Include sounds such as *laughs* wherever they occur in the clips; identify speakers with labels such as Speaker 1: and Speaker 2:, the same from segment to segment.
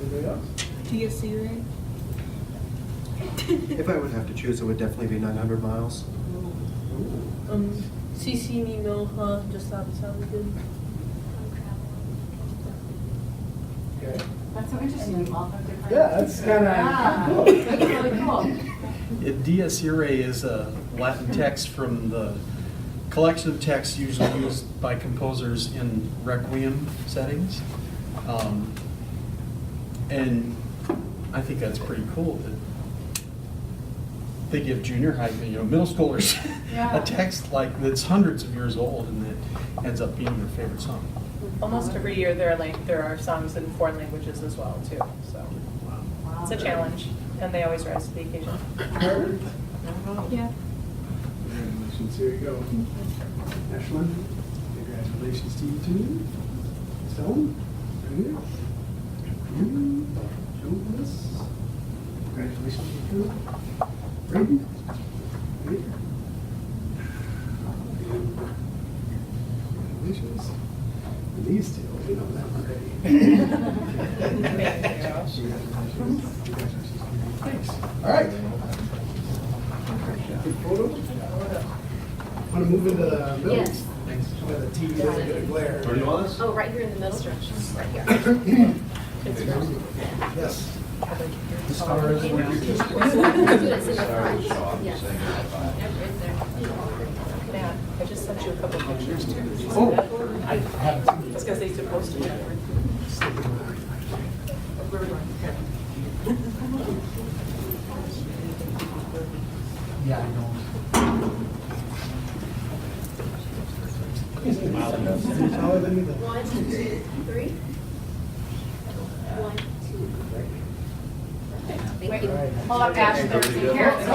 Speaker 1: Anybody else?
Speaker 2: Do you get *laughs*
Speaker 3: *laughs*
Speaker 2: cigarette?
Speaker 4: If I would have to choose, it would definitely be 900 miles.
Speaker 1: Ooh.
Speaker 3: Um, CC me, no, huh, just that sounds good.
Speaker 1: Okay.
Speaker 5: That's so interesting, all the different.
Speaker 1: Yeah, that's
Speaker 5: Yeah,
Speaker 1: kind
Speaker 5: that's
Speaker 1: of.
Speaker 5: really cool.
Speaker 6: Yeah, Dies irae is a Latin text from the collection of texts usually used by composers in requiem settings. Um, And I think that's pretty cool that they give junior high, you know, middle schoolers *laughs*
Speaker 5: Yeah.
Speaker 6: a text like that's hundreds of years old and that ends up being their favorite song.
Speaker 7: Almost every year, there are like, there are songs in foreign languages as well, too, so it's a challenge, and they always rise to the occasion.
Speaker 1: Carter?
Speaker 2: Yeah.
Speaker 1: Congratulations, here you go. Ashlyn, congratulations to you too. Stone, right here. You, Jonas, congratulations to you too. Braden, right here. And Congratulations. And these two, we know that already.
Speaker 7: Thank you.
Speaker 1: Congratulations. Congratulations. Thanks. All right. Photo? Want to move into the middle?
Speaker 3: Yes.
Speaker 1: Thanks. Where the TV is going to glare.
Speaker 8: Where do you want us?
Speaker 3: Oh, right here in the middle? Just right here.
Speaker 1: Yes.
Speaker 6: The stars
Speaker 3: It's in the front. Yes.
Speaker 7: Matt, I just sent you a couple pictures, too.
Speaker 6: Oh.
Speaker 7: I It's because they supposed to.
Speaker 6: Yeah, I know.
Speaker 1: Taller than me, though.
Speaker 3: One, two, three. One, two, three. Thank you.
Speaker 5: Hold up, Ash, there's the carrots.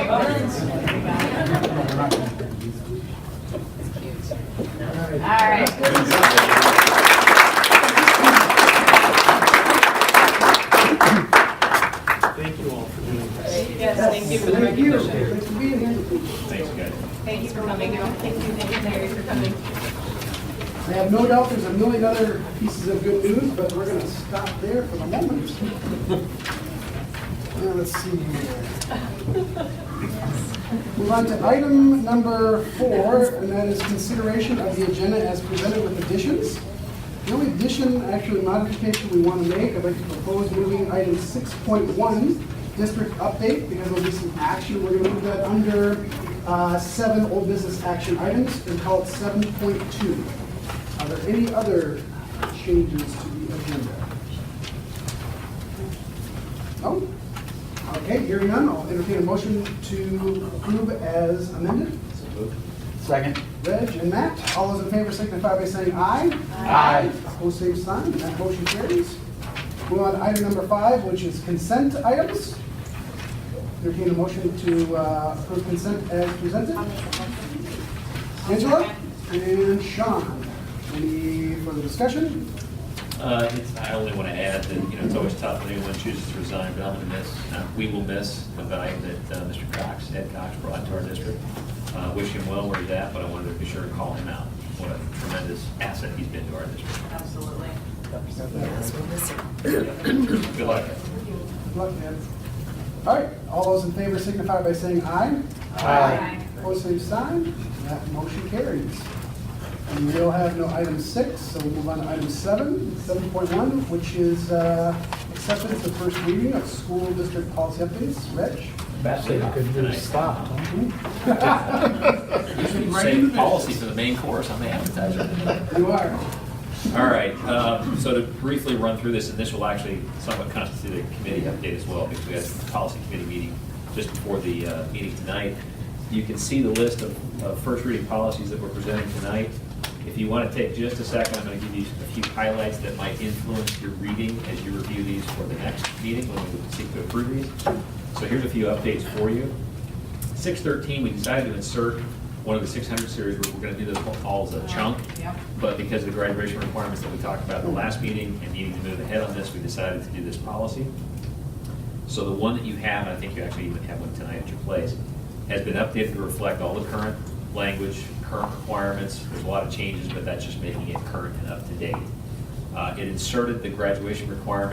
Speaker 1: All
Speaker 5: All
Speaker 1: right.
Speaker 5: right.
Speaker 6: Thank you all for doing this.
Speaker 7: Yes, thank you for the
Speaker 1: Thank you.
Speaker 7: recognition.
Speaker 1: Thanks for being here.
Speaker 7: Thank you for coming. Thank you, thank you, Mary, for coming.
Speaker 1: I have no doubt there's a million other pieces of good news, but we're going to stop there for the moment. Now, let's see here. Move on to item number four, and that is consideration of the agenda as presented with additions. The only addition, actually modification we want to make, I'd like to propose moving item 6.1, district update, because there'll be some action. We're going to move that under uh, seven old business action items and call it 7.2. Are there any other changes to the agenda? No? Oh, Okay, hearing none, I'll entertain a motion to approve as amended.
Speaker 6: Second.
Speaker 1: Reg and Matt, all those in favor signify by saying aye.
Speaker 6: Aye.
Speaker 1: Opposed, same sign, and that motion carries. Move on to item number five, which is consent items. Entertain a motion to uh, approve consent as presented. Angela and Sean, any further discussion?
Speaker 8: Uh, it's, I only want to add that, you know, it's always tough when anyone chooses to resign, but I'm going to miss, uh, we will miss the value that uh, Mr. Cox, Ed Cox brought to our district. Uh, Wish him well where he's at, but I wanted to be sure to call him out. What a tremendous asset he's been to
Speaker 7: *clears throat*
Speaker 8: our district.
Speaker 7: Absolutely.
Speaker 8: Good luck.
Speaker 1: Luck, man. All right, all those in favor signify by saying aye. Aye. Opposed, same sign, that motion carries. And we'll have no item six, so we'll move on to item seven, seven point one, which is uh, acceptance of first reading of school district policy updates. Reg?
Speaker 8: *laughs* stop.
Speaker 1: into
Speaker 8: Save policy for the main course on the appetizer.
Speaker 1: *laughs* You are.
Speaker 8: All right, um, so to briefly run through this, and this will actually somewhat constitute a committee update as well, because we had a policy committee meeting just before the uh, meeting tonight. You can see the list of of first reading policies that we're presenting tonight. If you want to take just a second, I'm going to give you a few highlights that might influence your reading as you review these for the next meeting when we seek to approve these. So here's a few updates for you. 613, we decided to insert one of the 600 series, where we're going to do this all as a chunk. But because of the graduation requirements that we talked about at the last meeting and needing to move ahead on this, we decided to do this policy. So the one that you have, and I think you actually even have one tonight at your place, has been updated to reflect all the current language, current requirements. There's a lot of changes, but that's just making it current and up to date. Uh, It inserted the graduation requirement